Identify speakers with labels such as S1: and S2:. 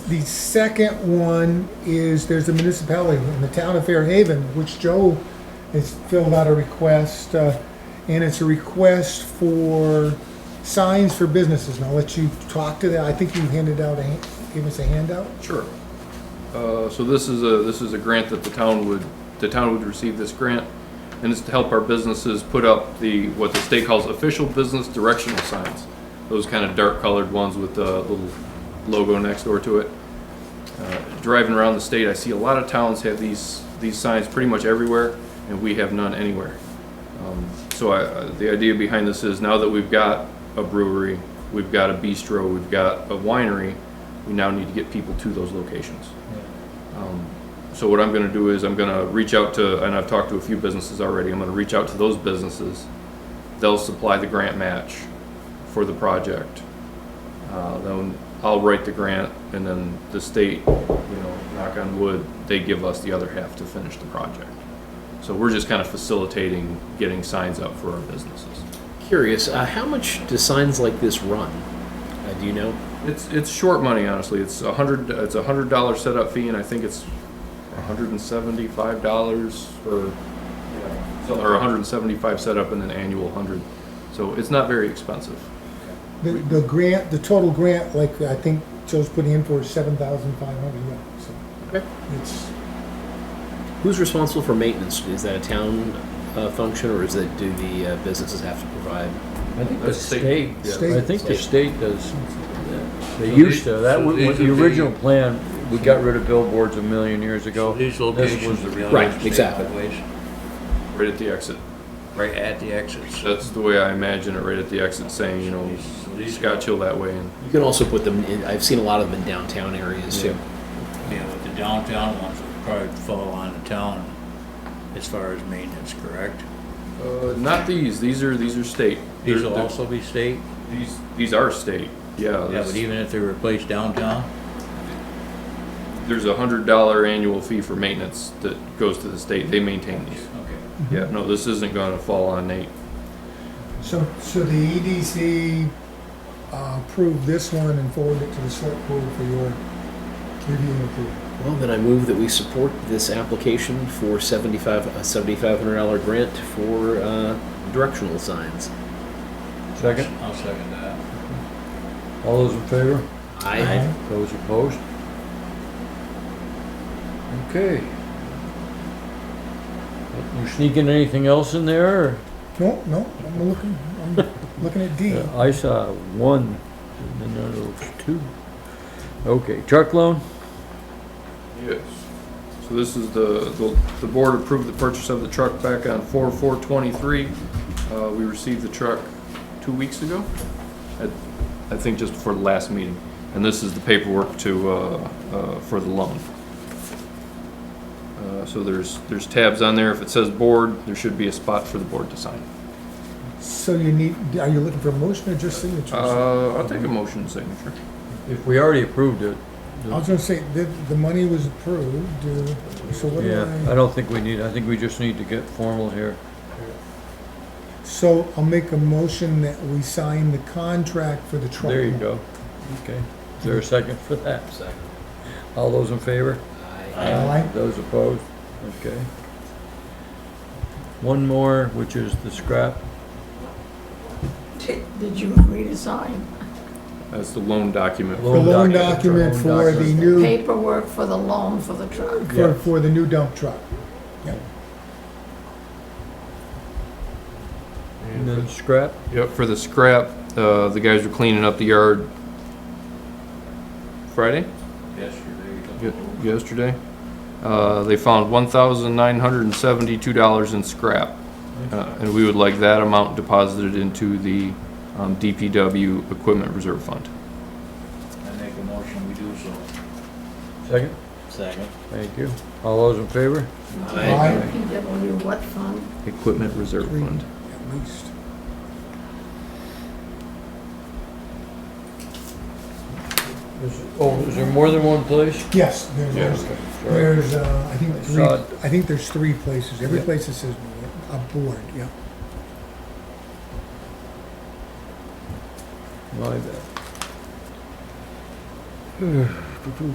S1: The second one is, there's a municipality in the town of Fairhaven, which Joe has filled out a request, uh, and it's a request for signs for businesses, and I'll let you talk to that. I think you handed out, a hand- gave us a handout?
S2: Sure. Uh, so this is a, this is a grant that the town would, the town would receive this grant, and it's to help our businesses put up the, what the state calls official business directional signs. Those kind of dark colored ones with the little logo next door to it. Uh, Driving around the state, I see a lot of towns have these, these signs pretty much everywhere, and we have none anywhere. Um, So I, uh, the idea behind this is now that we've got a brewery, we've got a bistro, we've got a winery, we now need to get people to those locations. Um, So what I'm gonna do is I'm gonna reach out to, and I've talked to a few businesses already, I'm gonna reach out to those businesses. They'll supply the grant match for the project. Uh, then I'll write the grant and then the state, you know, knock on wood, they give us the other half to finish the project. So we're just kind of facilitating getting signs up for our businesses.
S3: Curious, uh, how much do signs like this run? Uh, do you know?
S2: It's it's short money, honestly. It's a hundred. It's a hundred dollar setup fee, and I think it's one hundred and seventy five dollars for so- or one hundred and seventy five setup, and then annual hundred. So it's not very expensive.
S1: The, the grant, the total grant, like I think Joe's putting in for is seven thousand five hundred, so.
S3: Okay.
S1: It's,
S3: Who's responsible for maintenance? Is that a town uh, function, or is that do the uh, businesses have to provide?
S4: I think the
S2: That's state.
S4: state,
S2: Yeah.
S1: State.
S4: I think the state does, they
S5: So
S4: used
S5: they-
S4: to, that
S5: so
S4: was,
S5: these
S4: with the
S5: would be-
S4: original plan, we got rid of billboards a million years ago.
S5: These
S4: This was
S5: locations
S4: the
S5: are
S4: real.
S5: really.
S3: Right, exactly.
S2: Right at the exit.
S5: Right at the exits.
S2: That's the way I imagine it. Right at the exit, saying you know, Scotch Hill that way, and
S3: You can also put them. in I've seen a lot of them in downtown areas too.
S5: Yeah, but the downtown ones would probably fall on the town as far as maintenance, correct?
S2: uh, not these. These are these are state.
S5: These
S2: They're-
S5: will
S2: they're- Uh,
S5: also be state?
S2: these these are state. Yeah.
S5: Yeah, but
S2: there's-
S5: even if they replace downtown?
S2: there's a hundred dollar annual fee for maintenance that goes to the state. They maintain these.
S5: Okay.
S2: Yeah, no, this isn't gonna fall on Nate.
S1: so, so the EDC uh, approved this one and forwarded it to the select board for your review and approval.
S3: Well, then I move that we support this application for seventy-five a seventy-five hundred dollar grant for uh, directional signs.
S4: Second,
S5: I'll second that.
S4: all those in favor?
S3: I
S1: Uh-huh.
S4: Those opposed? Okay. You sneaking anything else in there? or?
S1: No, no, I'm looking, I'm looking at D.
S4: Yeah, Uh, I saw one, and then there was two. Okay, truck loan?
S2: Yes. So this is the, the, the board approved the purchase of the truck back on four, four twenty-three. Uh, we received the truck two weeks ago. I, I think just before the last meeting. And this is the paperwork to, uh, uh, for the loan. Uh, so there's, there's tabs on there. If it says board, there should be a spot for the board to sign.
S1: So you need, are you looking for a motion or just signatures? I
S2: Uh, I'll take a motion signature.
S4: If we already approved it.
S1: was gonna say, the, the money was approved, uh, so what do
S4: Yeah, I
S1: I?
S4: don't think we need, I think we just need to get formal here.
S1: So I'll make a motion that we sign the contract for the truck.
S4: There you go. Okay. Is there a second for that?
S3: Second.
S4: All those in favor?
S3: I
S1: Aye.
S4: Those opposed? Okay. One more, which is the scrap.
S6: Did did you want me to sign
S2: That's the loan document.
S1: The loan document
S4: Loan
S1: for the
S4: document.
S1: new,
S6: paperwork for the loan for the truck?
S1: for,
S4: Yeah.
S1: for the new dump truck.
S4: And then scrap?
S2: Yep, for the scrap, uh, the guys were cleaning up the yard Friday,
S5: Yesterday.
S2: ye- yesterday. Uh, they found one thousand nine hundred and seventy-two dollars in scrap. Uh, and we would like that amount deposited into the, um, DPW Equipment Reserve Fund.
S5: I make a motion, we do so.
S4: Second?
S5: Second.
S4: Thank you. All those in favor?
S3: I
S1: Aye.
S6: PW what fund?
S2: Equipment Reserve
S1: Three.
S2: Fund.
S1: At least.
S4: Is- Oh, is there more than one place?
S1: Yes, there's, there's, there's, uh, I think three,
S4: Sod.
S1: I think there's three places, every
S4: Yeah.
S1: place it says a board, yeah.
S4: My bad.